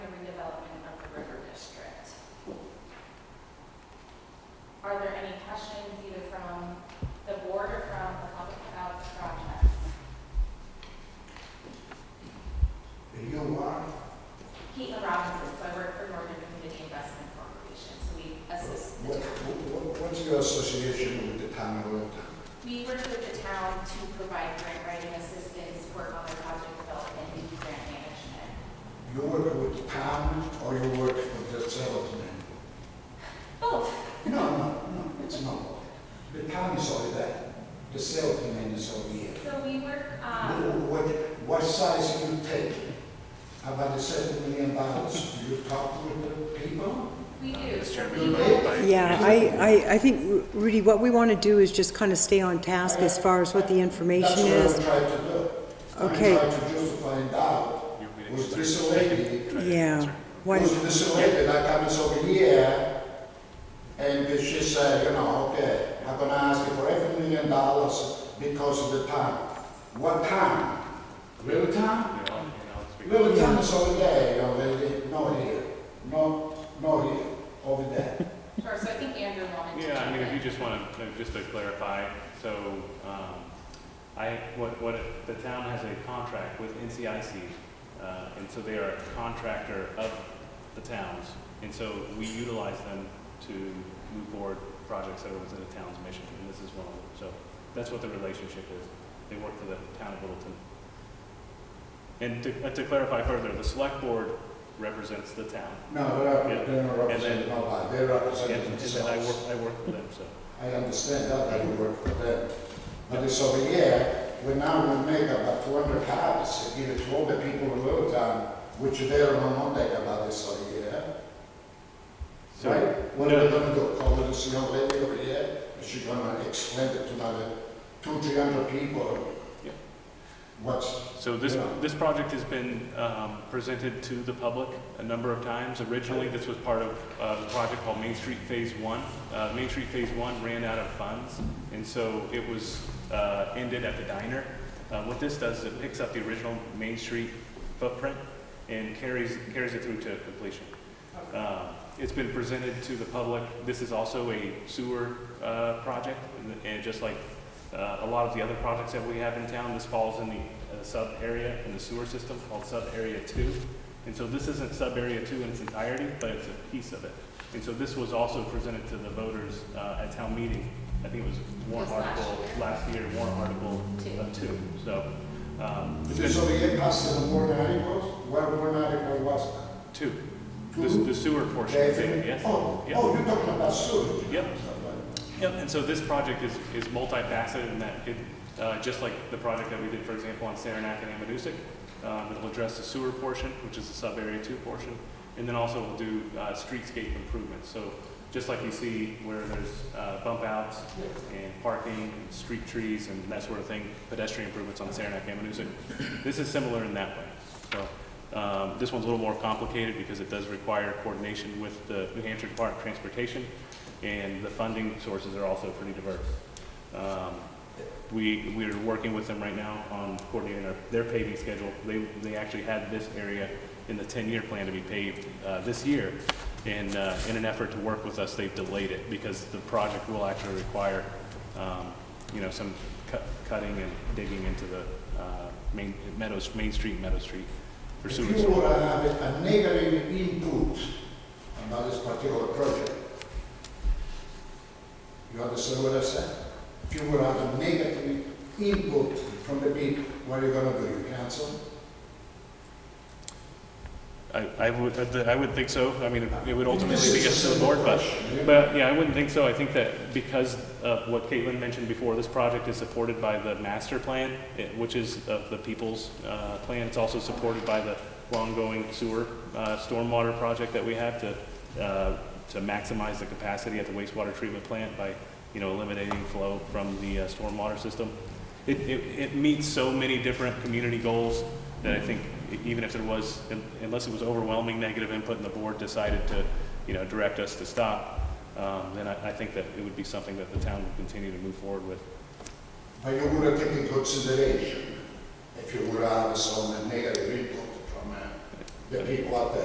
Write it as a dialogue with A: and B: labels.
A: Robinson, so I work for Northern Community Investment Corporation, so we assist the
B: What-
A: town.
B: what- What's your association with the town of Old Town?
A: We work with the town to provide grant writing assistance, work on the project development, and do grant management.
B: You work with the town or you work with the settlement?
A: Both.
B: No, no, no, it's not. The town is over there, the settlement is over here.
A: So we work, um,
B: Wh- What, what size you take? About the seven million dollars, do you talk with the people?
A: we do. So
B: Mr.
A: we
B: Mayor?
A: work-
C: Yeah, I, I, I think, Rudy, what we want to do is just kind of stay on task as far as what the information
B: That's
C: is.
B: what I'm trying to do.
C: Okay.
B: I'm trying to just find out, was this lady
C: Yeah. Why
B: was
C: don't-
B: disappointed, I come this over here, and she said, you know, okay, I'm gonna ask you for every million dollars because of the town. What town? Little town? Little town is over there, you know, they, they, no here, no, no here, over there.
A: Sure, so I think Andrew wanted to.
D: Yeah, I mean,
A: jump
D: if you
A: in.
D: just want to, just to clarify, so, um, I, what, what, if the town has a contract with NCIC, uh, and so they are a contractor of the towns, and so we utilize them to move forward projects that are within the town's mission, and this is one of them, so that's what the relationship is. They work for the town of Littleton. And to, and to clarify further, the select board represents the town,
B: No, they're
D: Yeah.
B: not, they're not representing nobody, they're
D: and,
B: representing
D: and then I work,
B: themselves.
D: I work for them, so.
B: I understand that, that you work for them. But it's over here, we now we make about two hundred copies, and give it to all the people in Little Town, which they don't know nothing about this over here.
D: So-
B: Right? What are
D: No.
B: we gonna do, call this young lady over here, and she's gonna explain it to another two, three hundred people?
D: Yeah.
B: What's,
D: So this,
B: Yeah.
D: this project has been um, presented to the public a number of times. Originally, this was part of uh, the project called Main Street Phase One. Uh, Main Street Phase One ran out of funds, and so it was uh, ended at the diner. Uh, What this does is it picks up the original Main Street footprint and carries, carries it through to completion. Uh, It's been presented to the public. This is also a sewer uh, project, and- and just like uh, a lot of the other projects that we have in town, this falls in the uh, sub-area in the sewer system called sub-area two. And so this isn't sub-area two in its entirety, but it's a piece of it. And so this was also presented to the voters uh, at town meeting. I think it was warrant
A: It was last
D: article, last year, warrant article
A: Two.
D: uh, two, so. um, it's
B: this
D: been-
B: over here past the board articles, where board article was?
D: Two, the the sewer portion,
B: They
D: of
B: think-
D: it, yes.
B: Oh,
D: Yeah.
B: oh, you're talking about sewage?
D: Yep. Yep, and so this project is, is multifaceted in that it, uh, just like the project that we did, for example, on Saranac and Amanuset, um, it'll address the sewer portion, which is the sub-area two portion, and then also we'll do, uh, streetscape improvements, so just like you see where there's, uh, bump outs and parking, and street trees and that sort of thing, pedestrian improvements on Saranac and Amanuset, this is similar in that way, so. Um, This one's a little more complicated because it does require coordination with the New Hampshire Department of Transportation, and the funding sources are also pretty diverse. Um, We, we're working with them right now on coordinating our- their paving schedule. They, they actually had this area in the 10-year plan to be paved uh, this year, and uh, in an effort to work with us, they've delayed it because the project will actually require, um, you know, some cut- cutting and digging into the uh, main, Meadows, Main Street, Meadow Street for
B: If
D: sewage.
B: you would have a negative input about this particular project, you understand what I said? If you would have a negative input from the people, what are you gonna do, you cancel?
D: I, I would, I would think so. I mean, it would ultimately be up to the board, but, but, yeah, I wouldn't think so. I think that because of what Caitlin mentioned before, this project is supported by the master plan, it- which is of the people's, uh, plan. It's also supported by the ongoing sewer, uh, stormwater project that we have to, uh, to maximize the capacity at the wastewater treatment plant by, you know, eliminating flow from the, uh, stormwater system. It, it, it meets so many different community goals that I think e, even if there was, unless it was overwhelming negative input and the board decided to, you know, direct us to stop, um, then I, I think that it would be something that the town would continue to move forward with.
B: But you would have taken into consideration if you would have some negative input from uh, the people out there.